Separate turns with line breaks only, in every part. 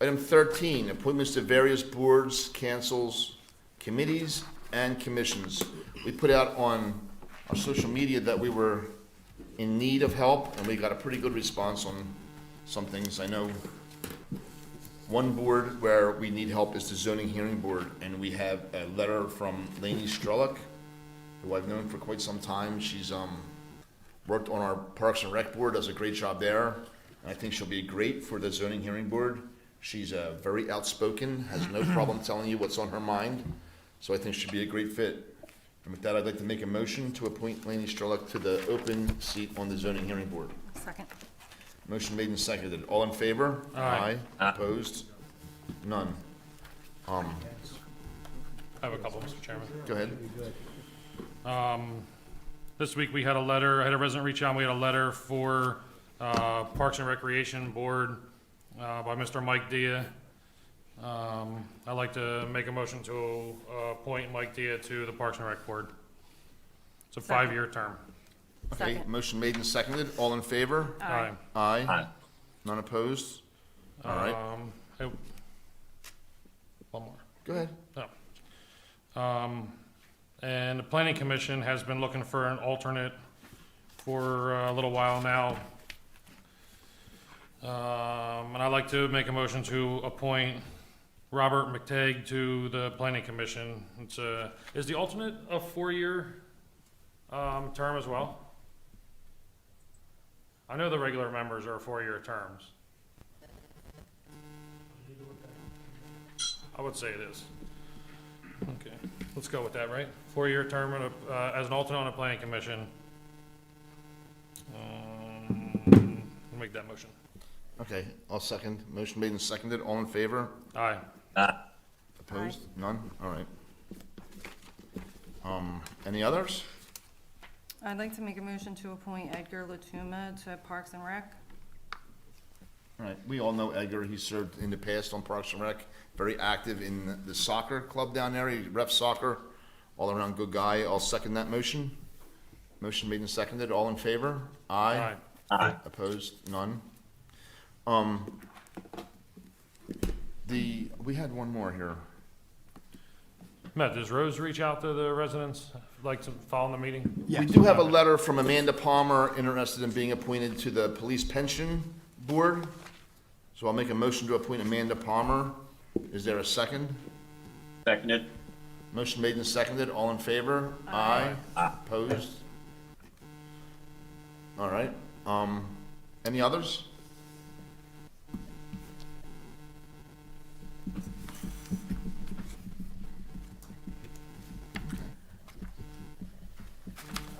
Item thirteen, appointments to various boards, councils, committees, and commissions. We put out on our social media that we were in need of help, and we got a pretty good response on some things. I know one board where we need help is the zoning hearing board, and we have a letter from Lainey Strellick, who I've known for quite some time. She's, um, worked on our Parks and Rec Board, does a great job there. And I think she'll be great for the zoning hearing board. She's uh, very outspoken, has no problem telling you what's on her mind. So I think she'd be a great fit. And with that, I'd like to make a motion to appoint Laney Strellick to the open seat on the zoning hearing board.
Second.
Motion made and seconded. All in favor?
Aye.
Opposed? None. Um,
I have a couple, Mr. Chairman.
go ahead.
This week, we had a letter, I had a resident reach out, we had a letter for uh, Parks and Recreation Board uh, by Mr. Mike Dia. Um, I'd like to make a motion to uh, appoint Mike Dia to the Parks and Rec Board. It's a five-year term.
Okay,
Second.
motion made and seconded. All in favor?
Aye.
Aye. None opposed? All right,
Um, I- One more.
go ahead.
Um, and the planning commission has been looking for an alternate for uh, a little while now. Um, and I'd like to make a motion to appoint Robert McTagg to the planning commission. It's a, is the alternate a four-year, um, term as well? I know the regular members are four-year terms. I would say it is. Okay, let's go with that, right? Four-year term on a- uh, as an alternate on a planning commission. Um, Make that motion.
Okay, I'll second. Motion made and seconded. All in favor?
Aye.
Opposed? None? All right. Um, any others?
I'd like to make a motion to appoint Edgar Latuma to Parks and Rec.
All right, we all know Edgar. He served in the past on Parks and Rec, very active in the soccer club down there. He ref soccer, all around good guy. I'll second that motion. Motion made and seconded. All in favor?
Aye.
Opposed? None. Um, the, we had one more here.
Matt, does Rose reach out to the residents, like to follow the meeting?
We do have a letter from Amanda Palmer interested in being appointed to the Police Pension Board. So I'll make a motion to appoint Amanda Palmer. Is there a second?
Seconded.
Motion made and seconded. All in favor? Aye. Opposed? All right. Um, any others?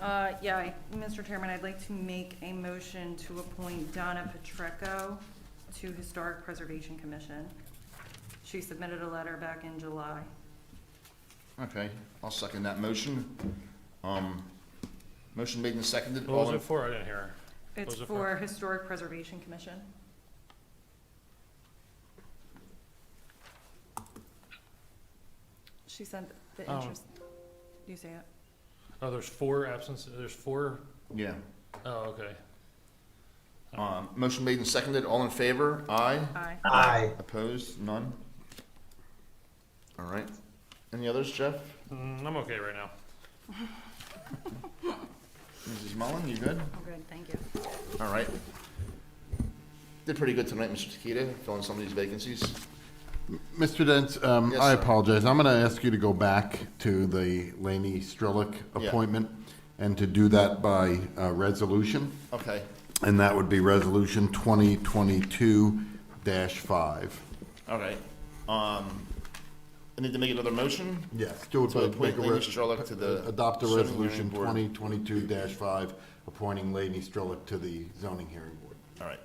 Uh, yeah, I- Mr. Chairman, I'd like to make a motion to appoint Donna Petreco to Historic Preservation Commission. She submitted a letter back in July.
Okay, I'll second that motion. Um, motion made and seconded.
What was
All in-
it for? I didn't hear.
It's
was it
for
for?
Historic Preservation Commission. She sent the
Oh.
interest, you say it?
Oh, there's four absences, there's four?
Yeah.
Oh, okay.
Um, motion made and seconded. All in favor? Aye.
Aye.
Aye.
Opposed? None? All right. Any others, Jeff?
Mm, I'm okay right now.
Mrs. Mullen, you good?
I'm good, thank you.
All right. Did pretty good tonight, Mr. Takita, filling some of these vacancies.
Mr. Dent, um,
Yes,
I
sir.
apologize. I'm going to ask you to go back to the Laney Strelick
Yeah.
appointment and to do that by uh, resolution,
Okay,
and that would be Resolution 2022-5.
all right. Um, I need to make another motion?
Yes, do it
To
by,
appoint
make a
Laney
res-
Strelick to the
adopt the
zoning
Resolution
hearing
2022-5, appointing Laney Strelick to the zoning hearing board.
All right.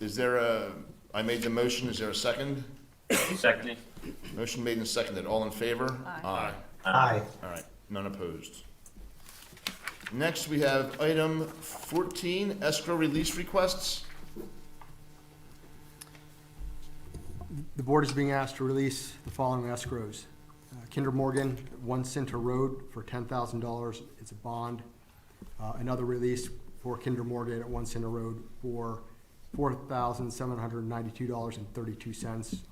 Is there a, I made the motion, is there a second?
Seconded.
Motion made and seconded. All in favor?
Aye.
Aye.
All right, none opposed. Next, we have item fourteen, escrow release requests.
The board is being asked to release the following escrows. Uh, Kinder Morgan, One Center Road for ten thousand dollars, it's a bond. Uh, Another release for Kinder Morgan at One Center Road for four thousand seven hundred ninety-two dollars and thirty-two cents